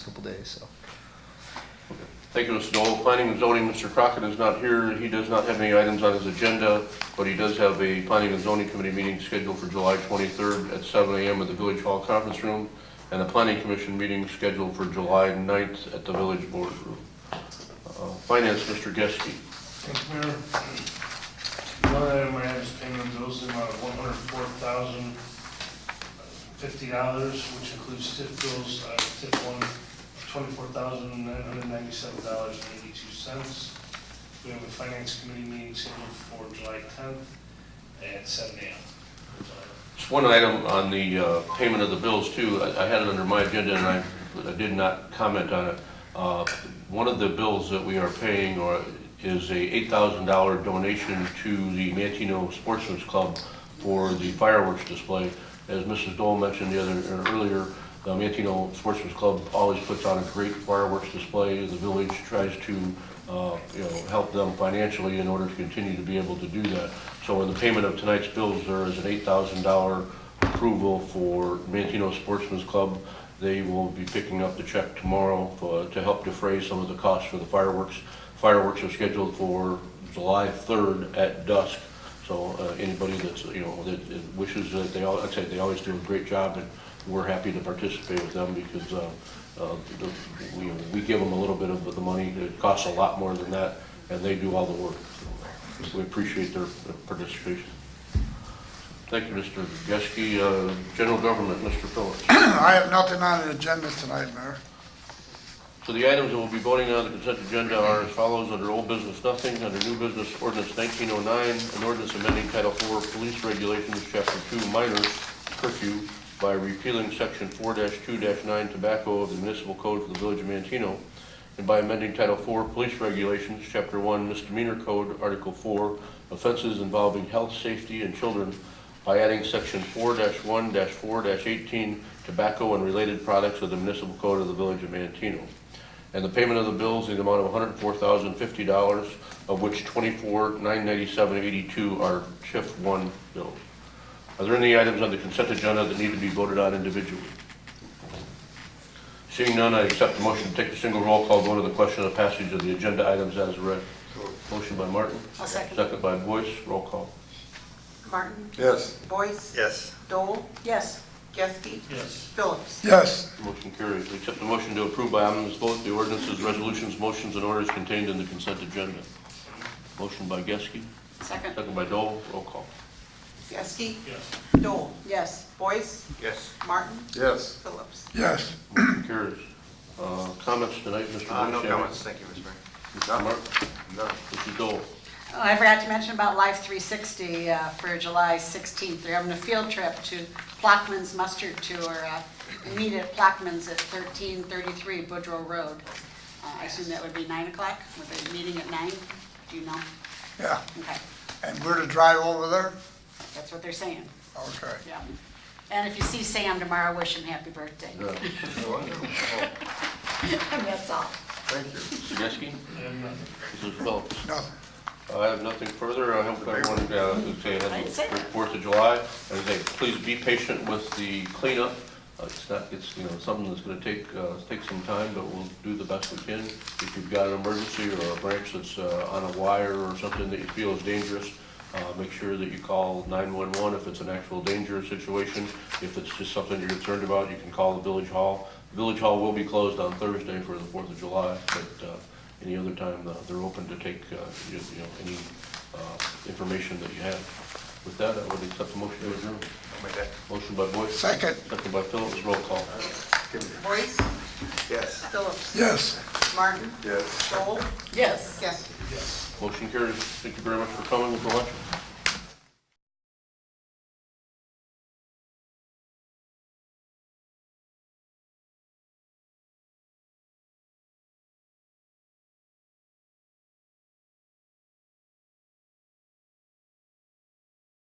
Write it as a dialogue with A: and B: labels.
A: couple days, so.
B: Thank you, Mr. Dole. Planning and zoning, Mr. Crockett is not here. He does not have any items on his agenda, but he does have a planning and zoning committee meeting scheduled for July 23rd at 7 a.m. at the Village Hall Conference Room, and a planning commission meeting scheduled for July 9th at the Village Board Room. Uh, Finance, Mr. Geske.
C: Thank you, Mayor. One item I have is payment of bills in the amount of one hundred four thousand fifty dollars, which includes TIF bills, uh, TIF one, twenty-four thousand nine hundred ninety-seven dollars and eighty-two cents. We have a finance committee meeting scheduled for July tenth at seven AM.
B: Just one item on the uh, payment of the bills too. I I had it under my agenda and I I did not comment on it. Uh, One of the bills that we are paying or is a $8,000 donation to the Mantino Sportsman's Club for the fireworks display. As Mrs. Dole mentioned the other, or earlier, the Mantino Sportsman's Club always puts on a great fireworks display. The village tries to, uh, you know, help them financially in order to continue to be able to do that. So in the payment of tonight's bills, there is an eight thousand dollar approval for Mantino Sportsman's Club. They will be picking up the check tomorrow for- to help defray some of the costs for the fireworks. Fireworks are scheduled for July third at dusk. So uh, anybody that's, you know, that that wishes, that they, al- I'd say they always do a great job, and we're happy to participate with them because uh, uh, the- we, we give them a little bit of the money. It costs a lot more than that, and they do all the work. So We appreciate their participation. Thank you, Mr. Geske. Uh, General Government, Mr. Phillips.
D: I have nothing on the agenda tonight, Mayor.
B: So the items that we'll be voting on the consent agenda are as follows, under old business, nothing, under new business, ordinance 1909, an ordinance amending Title IV Police Regulations, Chapter 2, minor curfew by repealing Section 4-2-9 tobacco of the municipal code for the village of Mantino, and by amending Title IV Police Regulations, Chapter 1 misdemeanor code, Article 4, offenses involving health, safety, and children by adding section four one four eighteen tobacco and related products of the municipal code of the village of Mantino. And the payment of the bills in the amount of hundred and four thousand fifty dollars, of which twenty-four, nine ninety-seven, eighty-two are TIF one bills. Are there any items on the consent agenda that need to be voted on individually? Seeing none, I accept the motion to take a single roll call vote on the question of passage of the agenda items as read. Motion by Martin.
E: I'll second.
B: Second by Boyce, roll call.
E: Martin?
D: Yes.
E: Boyce?
F: Yes.
E: Dole? Yes. Geske?
C: Yes.
E: Phillips?
D: Yes,
B: Motion carries. We Accept the motion to approve by unanimous vote the ordinances, resolutions, motions, and orders contained in the consent agenda. Motion by Geske,
E: Second.
B: second by Dole, roll call.
E: Geske?
C: Yes.
E: Dole? Yes. Boyce?
F: Yes.
E: Martin?
F: Yes.
E: Phillips?
D: yes.
B: Motion carries. Uh, Comments tonight, Mr.
F: Uh,
B: Boyce?
F: no comments, thank you, Mr. Mayor.
B: Mr. Mark,
F: None.
B: Mr. Dole.
G: Oh, I forgot to mention about Life 360 uh, for July 16th. They're having a field trip to Plackman's Mustard Tour. uh, They meet at Plackman's at 1333 Boudreaux Road. Uh, I assume that would be 9 o'clock, with a meeting at 9? Do you know?
D: Yeah,
G: Okay,
D: and we're to drive over there?
G: that's what they're saying,
D: Okay.
G: yeah. And if you see Sam tomorrow, wish him happy birthday.
B: Yeah.
G: That's all.
F: Thank you.
B: Mr. Geske,
C: And nothing.
B: Mrs. Phillips.
D: Nothing.
B: Uh, I have nothing further. I hope everyone, uh, would say,
G: I
B: has
G: didn't
B: a
G: say
B: great
G: that.
B: Fourth of July. As I say, please be patient with the cleanup. Uh, It's not, it's, you know, something that's gonna take, uh, take some time, but we'll do the best we can. If you've got an emergency or a branch that's, uh, on a wire or something that you feel is dangerous, uh, make sure that you call nine-one-one if it's an actual danger situation. If it's just something you're concerned about, you can call the village hall. Village hall will be closed on Thursday for the Fourth of July, but, uh, any other time, uh, they're open to take, uh, you you know, any uh, information that you have. With that, I would accept the motion to adjourn.
F: I'll make that.
B: Motion by Boyce.
D: Second,
B: Second by Phillips, roll call.
E: Boyce?
F: Yes.
E: Phillips?
D: yes.
E: Martin?
F: Yes.
E: Dole?
G: Yes.
E: Geske?
B: Motion carries. Thank you very much for coming and for watching.